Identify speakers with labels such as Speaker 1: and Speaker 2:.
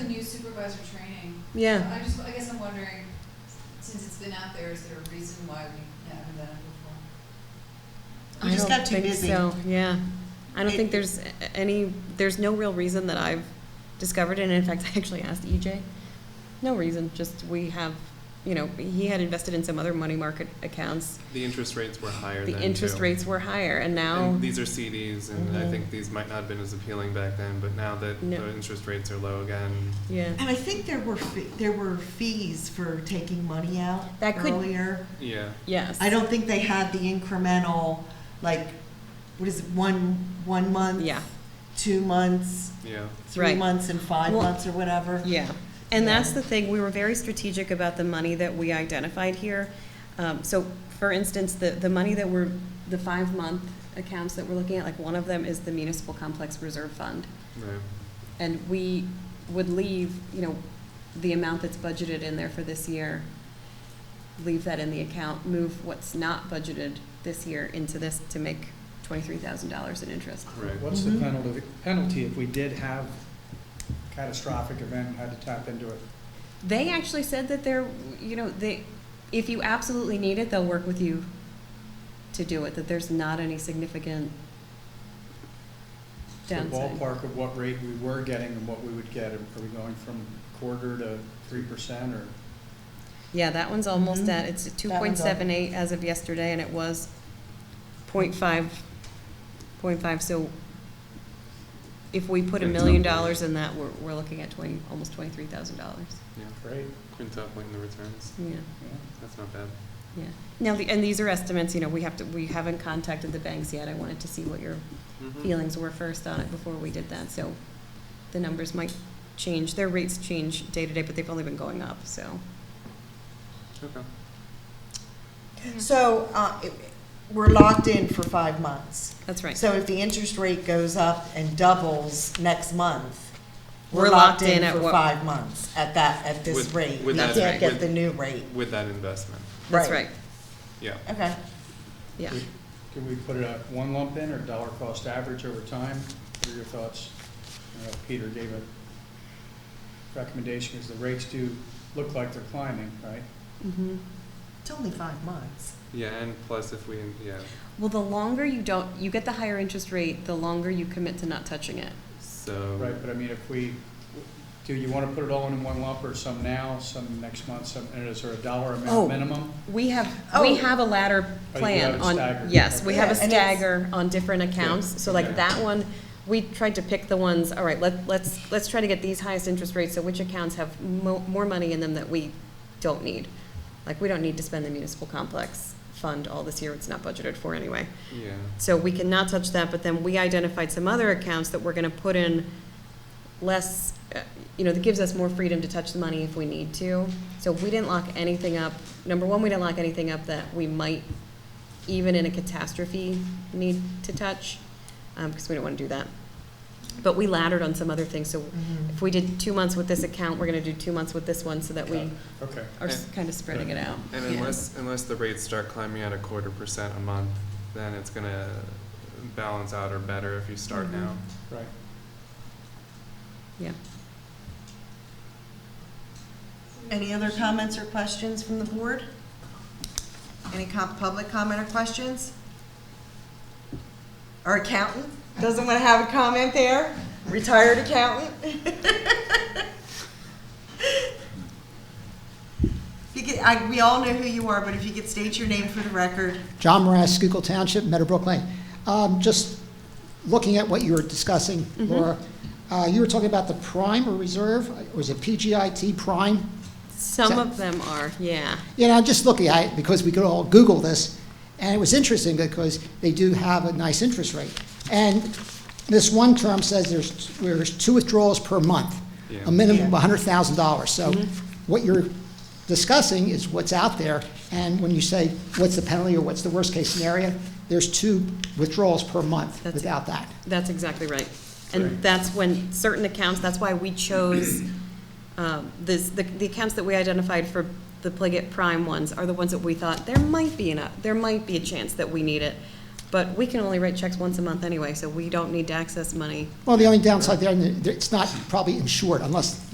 Speaker 1: guys are training.
Speaker 2: Yeah.
Speaker 1: I just, I guess I'm wondering, since it's been out there, is there a reason why we haven't done it
Speaker 3: We
Speaker 2: I
Speaker 3: just
Speaker 2: don't
Speaker 3: got too
Speaker 2: think
Speaker 3: busy.
Speaker 2: So, yeah. I don't
Speaker 3: It-
Speaker 2: think there's a- any, there's no real reason that I've discovered. And in fact, I actually asked EJ. No reason, just we have, you know, he had invested in some other money market accounts.
Speaker 4: The interest rates were higher
Speaker 2: The
Speaker 4: then,
Speaker 2: interest
Speaker 4: too.
Speaker 2: rates were higher and now,
Speaker 4: And these are CDs, and I
Speaker 2: Mhm.
Speaker 4: think these might not have been as appealing back then, but now that
Speaker 2: No.
Speaker 4: the interest rates are low again,
Speaker 2: yeah.
Speaker 3: And I think there were, fe- there were fees for taking money out
Speaker 2: That could-
Speaker 3: earlier.
Speaker 4: yeah.
Speaker 2: Yes.
Speaker 3: I don't think they had the incremental, like, what is it, one, one month?
Speaker 2: Yeah.
Speaker 3: Two months,
Speaker 4: Yeah.
Speaker 3: three
Speaker 2: Right.
Speaker 3: months and five
Speaker 2: Well-
Speaker 3: months or whatever?
Speaker 2: Yeah, and
Speaker 3: Yeah.
Speaker 2: that's the thing, we were very strategic about the money that we identified here. Um, so, for instance, the, the money that we're, the five-month accounts that we're looking at, like, one of them is the municipal complex reserve fund.
Speaker 4: Right.
Speaker 2: And we would leave, you know, the amount that's budgeted in there for this year, leave that in the account, move what's not budgeted this year into this to make twenty-three thousand dollars in interest.
Speaker 4: Right.
Speaker 5: What's the
Speaker 2: Mm-hmm.
Speaker 3: Mhm.
Speaker 5: penalty, penalty if we did have catastrophic event and had to tap into it?
Speaker 2: They actually said that they're, you know, they, if you absolutely need it, they'll work with you to do it, that there's not any significant
Speaker 5: It's The
Speaker 2: downside.
Speaker 5: ballpark of what rate we were getting and what we would get, are we going from quarter to three percent or?
Speaker 2: Yeah, that one's almost
Speaker 3: Mhm.
Speaker 2: at, it's two
Speaker 3: That
Speaker 2: point
Speaker 3: one's up.
Speaker 2: seven eight as of yesterday, and it was point five, point five, so if we put a
Speaker 4: That's
Speaker 2: million
Speaker 4: not bad.
Speaker 2: dollars in that, we're, we're looking at twenty, almost twenty-three thousand dollars.
Speaker 4: Yeah.
Speaker 5: Great.
Speaker 4: Quintupling the returns.
Speaker 2: Yeah.
Speaker 4: That's not bad.
Speaker 2: Yeah. Now, the- and these are estimates, you know, we have to, we haven't contacted the banks yet, I wanted to see what your
Speaker 4: Mhm.
Speaker 2: feelings were first on it before we did that, so the numbers might change, their rates change day to day, but they've only been going up, so.
Speaker 4: Okay.
Speaker 3: So, uh, it- we're locked in for five months.
Speaker 2: That's right.
Speaker 3: So if the interest rate goes up and doubles next month,
Speaker 2: We're
Speaker 3: we're locked
Speaker 2: locked in
Speaker 3: in
Speaker 2: at
Speaker 3: for
Speaker 2: what-
Speaker 3: five months at that, at this
Speaker 4: With-
Speaker 3: rate.
Speaker 4: with
Speaker 3: We
Speaker 4: that
Speaker 3: can't
Speaker 4: rate,
Speaker 3: get
Speaker 4: with-
Speaker 3: the new rate.
Speaker 4: With that investment,
Speaker 2: That's right,
Speaker 4: yeah.
Speaker 3: Okay.
Speaker 2: yeah.
Speaker 5: Can we put it at one lump in or dollar cost average over time? What are your thoughts? I know Peter gave a recommendation, because the rates do look like they're climbing, right?
Speaker 3: Mm-hmm.
Speaker 2: Mhm.
Speaker 3: It's only five months.
Speaker 4: Yeah, and plus if we, yeah,
Speaker 2: Well, the longer you don't, you get the higher interest rate, the longer you commit to not touching it.
Speaker 4: so.
Speaker 5: Right, but I mean, if we, do you want to put it all in one lump or some now, some next month, some, and is there a dollar
Speaker 2: Oh.
Speaker 5: amount minimum?
Speaker 2: We have, we
Speaker 3: Oh.
Speaker 2: have a ladder
Speaker 5: Oh, you
Speaker 2: plan
Speaker 5: have it
Speaker 2: on,
Speaker 5: staggered.
Speaker 2: yes, we have a
Speaker 3: Yeah, and it's-
Speaker 2: stagger on different accounts, so like
Speaker 4: Okay.
Speaker 2: that one, we tried to pick the ones, all right, let, let's, let's try to get these highest interest rates, so which accounts have mo- more money in them that we don't need? Like, we don't need to spend the municipal complex fund all this year, it's not budgeted for anyway.
Speaker 4: Yeah,
Speaker 2: So we cannot touch that, but then we identified some other accounts that we're gonna put in less, uh, you know, that gives us more freedom to touch the money if we need to. So we didn't lock anything up, number one, we didn't lock anything up that we might, even in a catastrophe, need to touch, um, because we don't wanna do that. But we laddered on some other things, so if we did two months with this account, we're gonna do two months with this one, so that we
Speaker 5: Okay,
Speaker 2: are kind of spreading it out.
Speaker 4: and
Speaker 2: Yeah.
Speaker 4: unless, unless the rates start climbing at a quarter percent a month, then it's gonna balance out or better if you start
Speaker 2: Mhm.
Speaker 4: now.
Speaker 5: right.
Speaker 1: before?
Speaker 3: Any other comments or questions from the board? Any com- public comment or questions? Our accountant doesn't want to have a comment there? Retired accountant? If You could, I, we all know who you are, but if you could state your name for the record.
Speaker 6: John Morass, Schuylkill Township, Meadowbrook Lane. Um, Just looking at what you were discussing, Laura, uh, you were talking about the prime or reserve, or is it PGIT prime?
Speaker 2: Some of them are, yeah.
Speaker 6: You know, I'm just looking at it because we could all Google this, and it was interesting because they do have a nice interest rate. And this one term says there's, there's two withdrawals per month,
Speaker 4: Yeah.
Speaker 6: a minimum
Speaker 3: Yeah.
Speaker 6: of $100,000. So
Speaker 2: Mm-hmm.
Speaker 6: what you're discussing is what's out there, and when you say, what's the penalty or what's the worst-case scenario, there's two withdrawals per month
Speaker 2: That's it.
Speaker 6: without that.
Speaker 2: That's exactly right. And that's when certain accounts, that's why we chose, um, this, the, the accounts that we identified for the Pliget Prime ones are the ones that we thought, there might be enough, there might be a chance that we need it. But we can only write checks once a month anyway, so we don't need to access money
Speaker 6: Well, the only downside there, and it's not probably insured unless